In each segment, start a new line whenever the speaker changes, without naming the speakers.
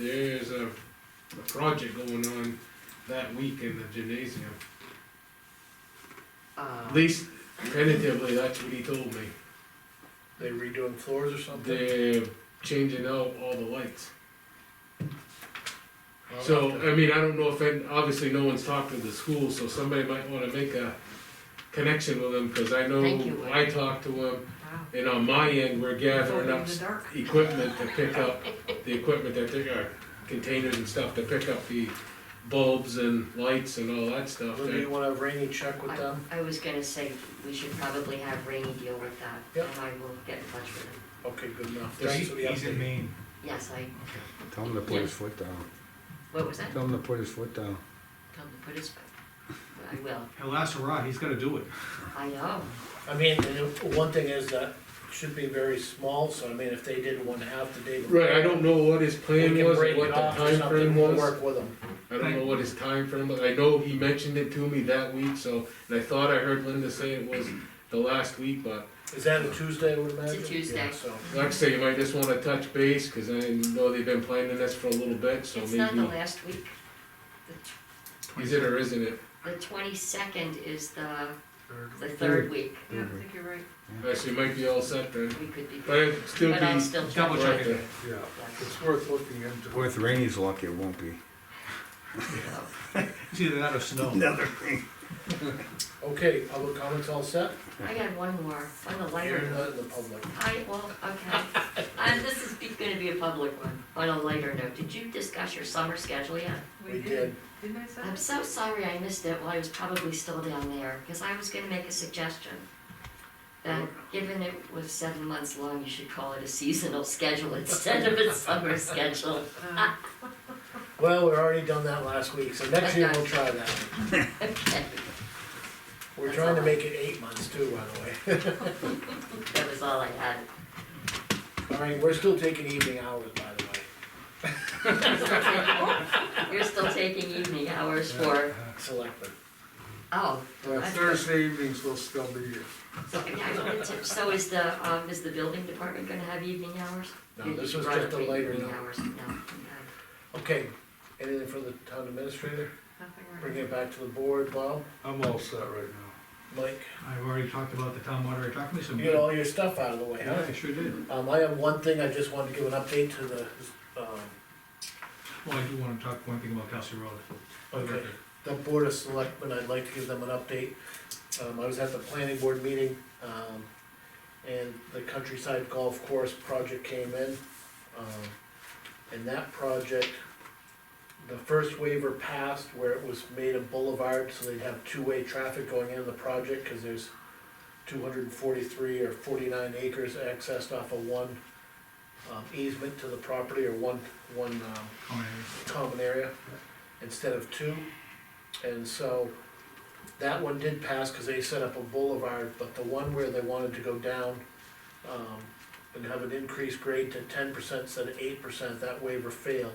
there's a, a project going on that week in the gymnasium.
Uh-huh. Uh,
At least tentatively, that's what he told me.
They redoing floors or something?
They're changing out all the lights.
I'll
So,
have to-
I mean, I don't know if, any- obviously, no one's talked to the school, so somebody might wanna make a connection with them, cause I know
Thank you, Woody.
I talked to them,
wow.
and on my end, we're gathering
Totally
up
in the dark.
equipment to pick up, the equipment that they are, containers and stuff to pick up the bulbs and lights and all that stuff.
Olivia, you wanna have Rainey check with
I,
them?
I was gonna say, we should probably have Rainey deal with that,
Yep.
and I will get in touch with him.
Okay, good enough.
Does
Thanks for the update.
Maine.
Yes, I,
Tell him to put his foot down.
what was that?
Tell him to put his foot down.
Tell him to put his, I will,
He'll ask Rod, he's gonna do it.
I know,
I mean, the one thing is that should be very small, so I mean, if they did one half the day.
Right, I don't know what his
We
plan
can
was,
break
or what
it
the
off or
time
something,
frame
we'll
was,
work with them.
I don't know what his time frame was, I know he mentioned it to me that week, so, and I thought I heard Linda say it was the last week, but
Is that a Tuesday, I would imagine?
Tuesday.
Yeah, So,
Like I say, you might just wanna touch base, cause I know they've been planning this for a little bit, so
it's not the
maybe,
last week,
is it or isn't it?
the twenty-second is the, the
Third.
third week.
Yeah,
Mm-hmm.
I think
you're right.
Actually, you might be all set then,
We could be,
but it'd still
but I'll
be.
still check.
Double
right
check it.
there.
Yeah.
Yes,
It's worth looking into.
With Rainey's luck, it won't be.
so.
It's either that or snow.
okay, public comments all set?
I got one more, on the lighter
You're
note.
not in the public.
I, well, okay, and this is be- gonna be a public one, on a lighter note, did you discuss your summer schedule yet?
We did.
Didn't I say?
I'm so sorry I missed it while I was probably still down there, because I was gonna make a suggestion. That given it was seven months long, you should call it a seasonal schedule instead of a summer schedule.
Uh,
Well, we're already done that last week, so next year we'll try that.
Okay,
We're trying to make it eight months too, by the way.
That was all I had.
All right, we're still taking evening hours, by the way,
You're still taking evening hours for,
selectmen.
oh. I-
evenings will still be here.
So, yeah, I wanted to- so is the, um, is the building department gonna have evening hours?
No,
You-
this
you
was
brought
just
up
a later
Evening
note.
hours, no, no.
Okay, anything for the town administrator?
nothing
Bring it back to the board, Bob,
I'm all set right now.
Mike,
I've already talked about the town moderator, talk to me some.
you get all your stuff out of the way,
Yeah,
huh?
I sure did.
Um, I have one thing, I just wanted to give an update to the, um,
Well, I do wanna talk one thing about Kelsey Road.
okay, the board of selectmen, I'd like to give them an update. Um, I was at the planning board meeting, um, and the countryside golf course project came in. Um, and that project, the first waiver passed where it was made a boulevard, so they'd have two-way traffic going into the project, cause there's two hundred and forty-three or forty-nine acres accessed off of one, um, easement to the property or one, one, um,
Oh,
common area instead of two. And so that one did pass because they set up a boulevard, but the one where they wanted to go down um, and have an increased grade to ten percent instead of eight percent, that waiver failed.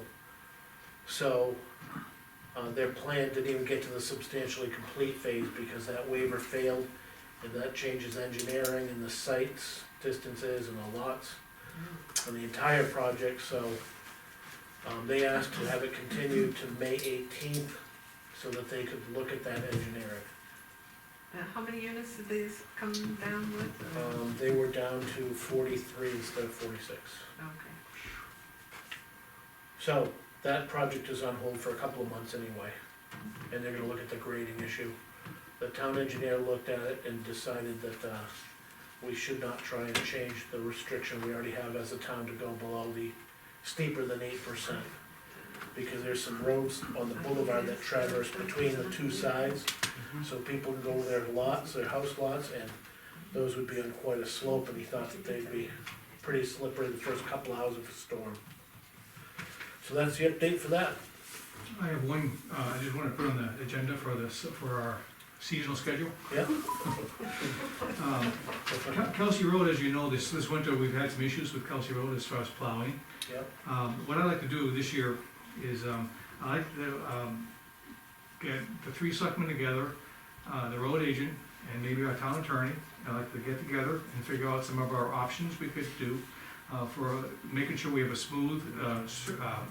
So uh, their plan didn't even get to the substantially complete phase because that waiver failed. And that changes engineering and the sites, distances and the lots and the entire project, so um, they asked to have it continued to May eighteenth, so that they could look at that engineering.
Uh, How many units did these come down with? Uh,
Um, they were down to forty-three instead of forty-six.
Okay.
So, that project is on hold for a couple of months anyway, and they're gonna look at the grading issue. The town engineer looked at it and decided that, uh, we should not try and change the restriction we already have as a town to go below the steeper than eight percent. Because there's some roads on the boulevard that traverse between the two sides, so people can go over their lots, their house lots, and those would be on quite a slope, and he thought that they'd be pretty slippery the first couple hours of a storm. So that's the update for that.
yeah. I have one, uh, I just wanna put on the agenda for this, for our seasonal schedule.
Yeah.
Um, Kel- Kelsey Road, as you know, this, this winter, we've had some issues with Kelsey Road as far as plowing.
Yep.
Um, what I'd like to do this year is, um, I like to, um, get the three selectmen together, uh, the road agent, and maybe our town attorney. I'd like to get together and figure out some of our options we could do, uh, for making sure we have a smooth, uh, s- uh,